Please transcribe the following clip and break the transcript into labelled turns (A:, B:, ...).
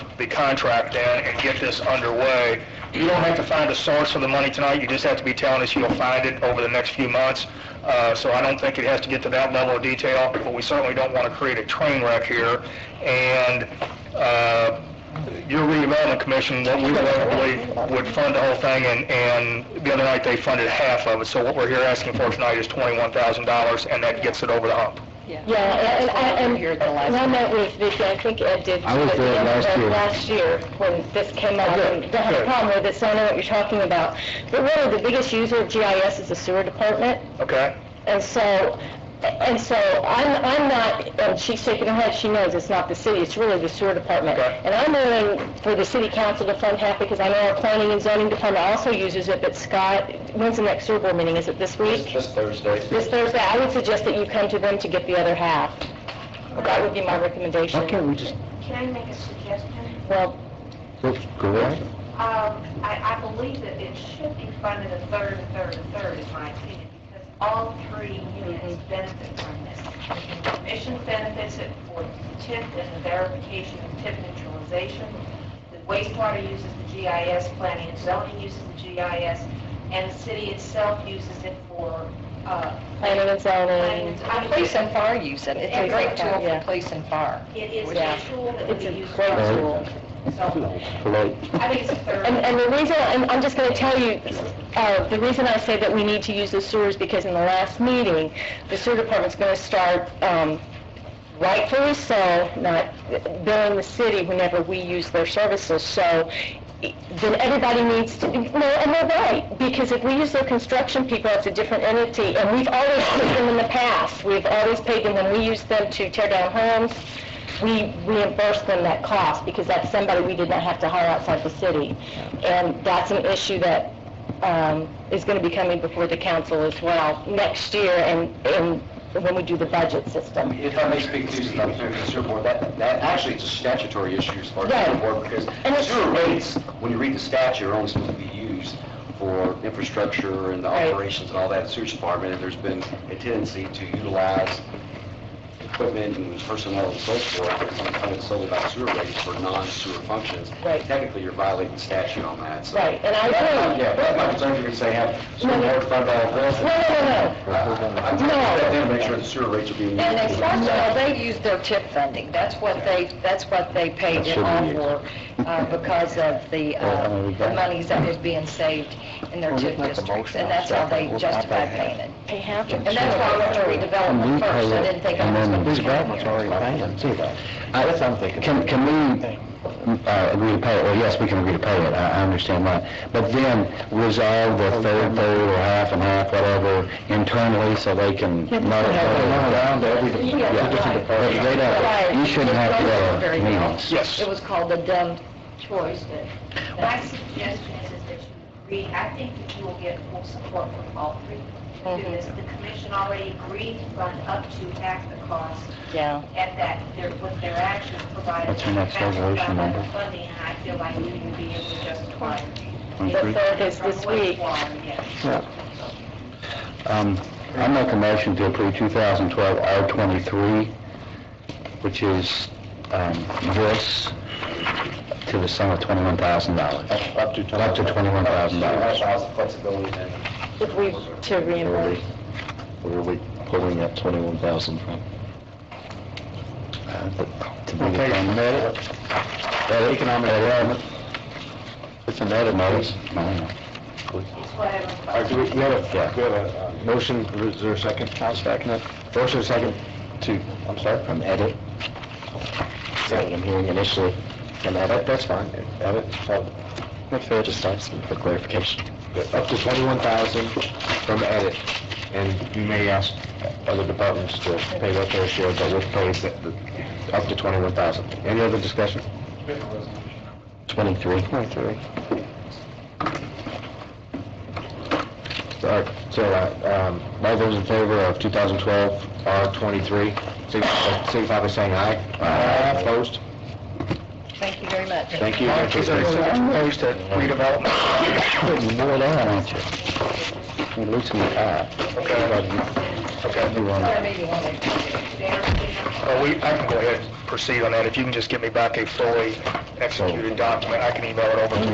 A: the contract in and get this underway. You don't have to find a source for the money tonight, you just have to be telling us you'll find it over the next few months. Uh, So I don't think it has to get to that level of detail, but we certainly don't want to create a train wreck here. And uh, your redevelopment commission, what we locally would fund the whole thing, and, and the other night they funded half of it. So what we're here asking for tonight is $21,000, and that gets it over the hump.
B: Yeah, and I, and and I met with Vicki, I think Ed did.
C: I was there last year.
B: Last year, when this came up, and I had a problem with it, so I know what you're talking about. But really, the biggest user of GIS is the sewer department,
A: Okay?
B: and so, and so I'm, I'm not, and she's shaking her head, she knows it's not the city, it's really the sewer department.
A: Okay.
B: And I'm willing for the city council to fund half, because I know our planning and zoning department also uses it, but Scott, when's the next sewer board meeting, is it this week?
D: This Thursday.
B: This Thursday, I would suggest that you come to them to get the other half. That would be my recommendation.
C: Why can't we just,
E: Can I make a suggestion?
B: Well,
C: well, go ahead?
E: Um, I, I believe that it should be funded a third, a third, a third, in my opinion, because all three
B: Mm-hmm.
E: units benefit from this. The commission benefits it for TIF and the verification of TIF neutralization. The wastewater uses the GIS, planning and zoning uses the GIS, and the city itself uses it for, uh,
B: planning and zoning,
E: planning. I mean,
F: Police and fire use it. It's a great tool
B: Yeah.
F: for police and fire.
E: It is
B: Yeah.
E: a tool that
B: it's
E: we
B: a
E: use.
B: great
C: Right.
B: tool.
E: So,
C: Hello?
E: I think it's a third.
B: And, and the reason, and I'm just gonna tell you, uh, the reason I say that we need to use the sewers, because in the last meeting, the sewer department's gonna start, um, rightfully so, not billing the city whenever we use their services, so then everybody needs to, no, and they're right, because if we use their construction people, it's a different entity, and we've always paid them in the past, we've always paid them when we used them to tear down homes, we reimbursed them that cost, because that's somebody we did not have to hire outside the city. And that's an issue that um, is going to be coming before the council as well next year, and, and when we do the budget system.
D: If I may speak to something through the sewer board, that, that actually is a statutory issue as far as the sewer
B: Right.
D: board, because
B: And it's-
D: sewer rates, when you read the statute, are only supposed to be used for infrastructure and the
B: Right.
D: operations and all that sewer department, and there's been a tendency to utilize equipment and personnel and so forth, but it's only solely about sewer rates for non-sewer functions.
B: Right.
D: Technically, you're violating statute on that, so.
B: Right, and I agree.
D: Yeah, that's my concern, you can say, have sewer board fund all this.
B: No, no, no,
D: I'm trying to get them to make sure the sewer rates are being.
F: And they,
D: used.
F: well, they use their tip funding. That's what they, that's what they paid it on for, uh, because of the, uh, the monies that was being saved in their tip districts. And that's how they justify paying it.
B: no. They have to.
F: And that's why I went to redevelopment first. I didn't think I was going to.
C: That's what I'm thinking. Can, can we uh, agree to pay it? Well, yes, we can agree to pay it, I, I understand that. But then resolve the third, third, or half and half, whatever, internally, so they can not... Down to every
B: Yeah, right. Right.
C: You shouldn't have, uh, you know...
A: Yes.
F: It was called the dumb choice.
E: My suggestion is is that you agree, I think that you will get full support from all three to do this. The commission already agreed to fund up to half the cost
B: Yeah.
E: at that, their- with their actions provided.
C: What's your next resolution number?
E: Funding, and I feel like you will be able to justify.
B: The third is this week.
E: Wastewater, yes.
C: Um, I make a motion to approve 2012 R23, which is um, this, to the sum of $21,000. Up to Up to $21,000.
D: Allows the flexibility and
B: If we, to reimburse.
C: Where are we pulling that 21,000 from? Uh, To be determined. Economic development. It's an edit, notice.
E: It's whatever.
G: All right, do we, we have a, we have a uh, motion, is there a second, Counsel Stacknet? Motion, second, to, I'm sorry?
C: From edit. Is that what I'm hearing initially? From
G: That,
C: edit?
G: that's fine, edit, so,
C: That's fair, just asking for clarification.
G: up to twenty-one thousand from edit, and you may ask other departments to pay what their share, but we'll pay the, the- up to twenty-one thousand. Any other discussion?
C: 23.
G: Twenty-three. All right, so, uh, um, all those in favor of 2012 R23, signify signify by saying aye. Aye. Opposed?
F: Thank you very much.
G: Thank you.
A: Mark, is there such a place to redevelopment? Uh,
C: Putting more down, aren't you? You're losing your eye.
A: Okay. Okay.
F: Whatever you want to do.
A: Well, we, I can go ahead and proceed on that. If you can just get me back a fully executed document, I can email it over to you.